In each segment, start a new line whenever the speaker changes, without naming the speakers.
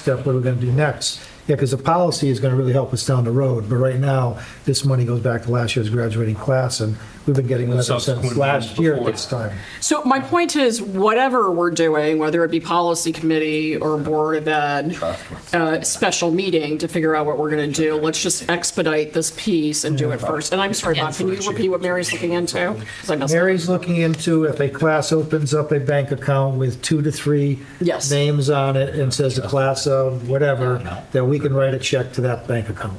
step, what are we going to do next? Yeah, because the policy is going to really help us down the road, but right now, this money goes back to last year's graduating class, and we've been getting letters since
Subsequent
last
ones
year at
before.
this time.
So my point is, whatever we're doing, whether it be policy committee or board of ed, uh, special meeting to figure out what we're going to do, let's just expedite this piece and do it first. And I'm sorry, Bob, can you repeat what Mary's looking into? 'Cause I messed up.
Mary's looking into if a class opens up a bank account with two to three
Yes.
names on it and says the class of whatever, that we can write a check to that bank account.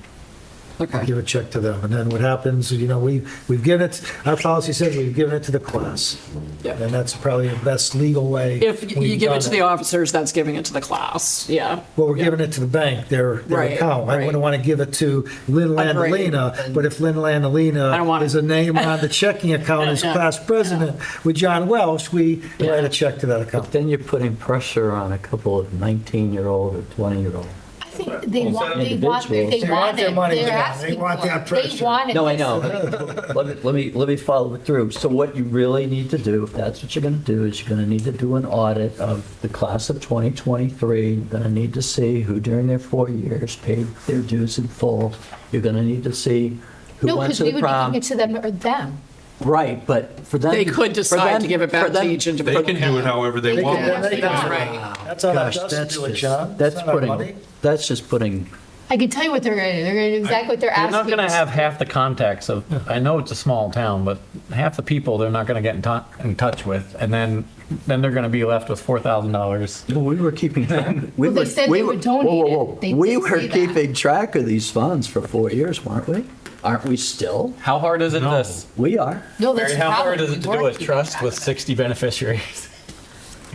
Okay.
give a check to them. And then what happens, you know, we, we've given it, our policy says we've given it to the class.
Yeah.
And that's probably the best legal way.
If you
we've
give
done
it to the officers, that's giving it to the class, yeah.
Well, we're giving it to the bank, their, their
Right,
account. I
right.
wouldn't want to give it to Lynn
Agreed.
Landalina, but if Lynn Landalina
I don't want it.
is a name on the checking account as
Yeah.
class president with John Welsh, we write a check to that account.
Then you're putting pressure on a couple of 19-year-old or 20-year-old.
I think they want, they want, they
Individuals.
want it.
They want their money
They're
back.
asking
They want
for it.
that
They
pressure.
want it.
No, I know. Let me, let me, let me follow it through. So what you really need to do, if that's what you're gonna do, is you're gonna need to do an audit of the class of 2023. You're gonna need to see who during their four years paid their dues in full. You're gonna need to see who
No,
went
because
to
we
the
would be giving
prom.
it to them or them.
Right, but for them.
They could
for
decide to
them-
give it back
for
to
them-
each individual.
They can do it however they
They
want.
can do it.
That's
Right.
how that
Gosh,
does
that's
do it,
just-
John. It's
That's
not our money.
putting, that's just putting
I can tell you what they're going to do. They're going to do exactly what they're
They're
asking.
not going to
us.
have half the contacts of, I know it's a small town, but half the people they're not going to get in touch, in touch with. And then, then they're going to be left with $4,000.
Well, we were keeping track. We
Well, they
were-
said
we
they
were-
would donate
whoa, whoa,
it.
whoa.
They
We
did
were
say that.
keeping track of these funds for four years, weren't we? Aren't we still?
How hard is it this?
We are.
No, that's
Barry, how
probably
hard is it to do a
worth it.
trust with 60 beneficiaries?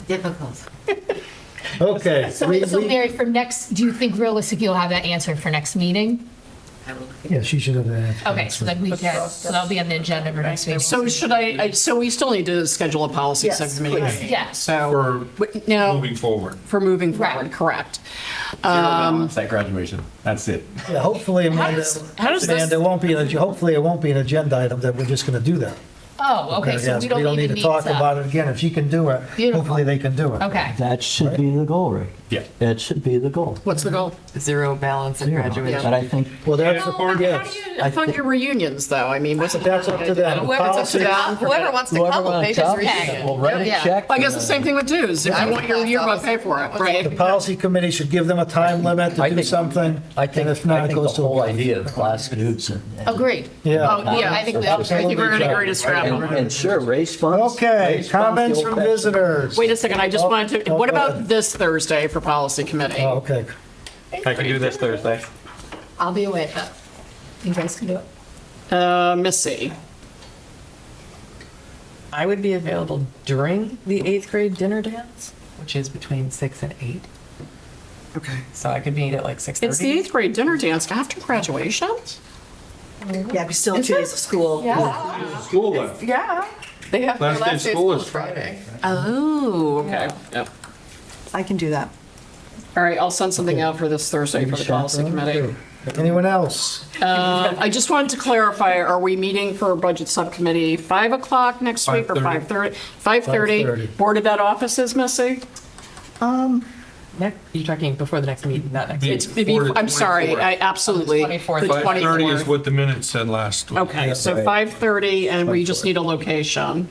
difficult.
Okay. we-
So, so
we-
Mary, for next, do you think realistically you'll have that answer for next meeting?
I will look at
Yeah, she should have that.
Okay, so that we can, so that'll be on the agenda for next meeting.
So should I, I- so we still need to schedule a policy
Yes,
subcommittee?
please.
Yes.
um,
So, but now,
Moving forward.
for moving
Right.
forward, correct.
That graduation, that's it.
Yeah, hopefully, Amanda,
does- how does this-
Amanda, it won't be, an- hopefully it won't be an agenda item that we're just going to do that.
Oh, okay, so
Yes,
we don't even
need to talk about it again. If she can do it,
Beautiful.
hopefully they can do it.
Okay.
That should be the goal, Rick.
Yeah.
That should be the goal.
What's the goal?
it. Zero balance at
But
graduation.
I think,
Well, that's,
Yeah, or-
yes.
I
Fund
think-
your reunions, though. I mean, what's it?
That's up to them.
Whoever's up to
Policy-
them, whoever wants to
whoever
come,
wants
they
to
just
come,
read it.
we'll write a
Yeah.
check.
Well, I guess the same thing with dues. If you want your yearbook, pay for it,
The
right?
policy committee should give them a time limit to
I
do
think-
something,
I
and
think,
if not,
I
it
think the
goes to.
whole idea of class dudes and. and-
Agreed.
Yeah.
Oh, yeah,
I think we all-
I think we're going to agree to scrap.
And sure, raise funds.
Okay,
raise funds
comments
the
from
old-fashioned-
visitors.
Wait a second, I just wanted to,
Oh,
what
go
about
ahead.
this Thursday for policy committee?
Oh, okay.
I can do this Thursday.
I'll be away, but you guys can do it.
Uh, Missy,
I would be available during the eighth grade dinner dance, which is between six and eight. Okay. So I could meet at like six thirty.
it's the eighth grade dinner dance after graduation?
Yeah, it'd be still two days of school.
Yeah.
School then.
Yeah. They have their
Last day of
last day of
school
school
is
is Friday.
Oh, okay. Yep.
I can do that.
All right, I'll send something out for this Thursday for the policy committee.
Anyone else?
Um, I just wanted to clarify, are we meeting for a budget subcommittee 5 o'clock next week or 5:30?
5:30?
5:30,
5:30.
Board of Ed offices, Missy?
Next, you're talking before the next meeting, not next
Yeah.
week.
It's, maybe-
Four to
I'm sorry, I
24.
absolutely.
On the 24th.
The
5:30 is
24th.
what the minutes said last week.
Okay, so 5:30, and we just need a location.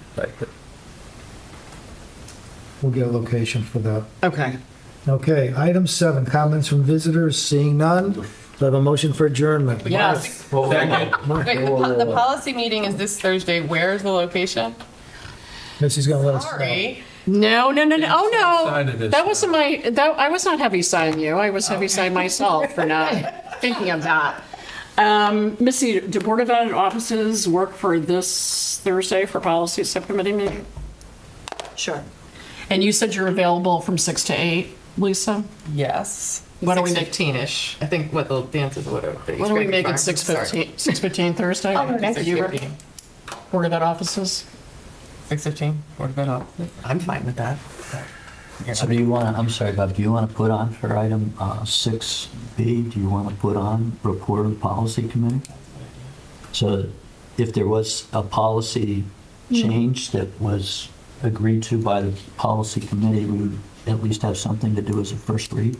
We'll get a location for that.
Okay.
Okay, item seven, comments from visitors, seeing none. Do I have a motion for adjournment?
Yes.
Wait, the po- the policy meeting is this Thursday. Where is the location?
Missy's going to let us know.
Sorry.
No, no, no, no, oh,
Heavy-sided
no.
is-
That wasn't my, that, I was not heavy signing you. I was heavy signing myself for not thinking of that. Um, Missy, do Board of Ed offices work for this Thursday for policy subcommittee meeting?
Sure.
And you said you're available from 6 to 8, Lisa?
Yes.
Why don't we make-
fifteen-ish? I think what the dance is what.
Why don't we make it 6:15, 6:15 Thursday?
Oh,
You were- Board of Ed offices?
Six fifteen, Board of Ed office. I'm fine with that.
So do you want, to I'm sorry, Bob, do you want to put on for item uh, 6B, do you want to put on report of the policy committee? So if there was a policy change that was agreed to by the policy committee, we would at least have something to do as a first read?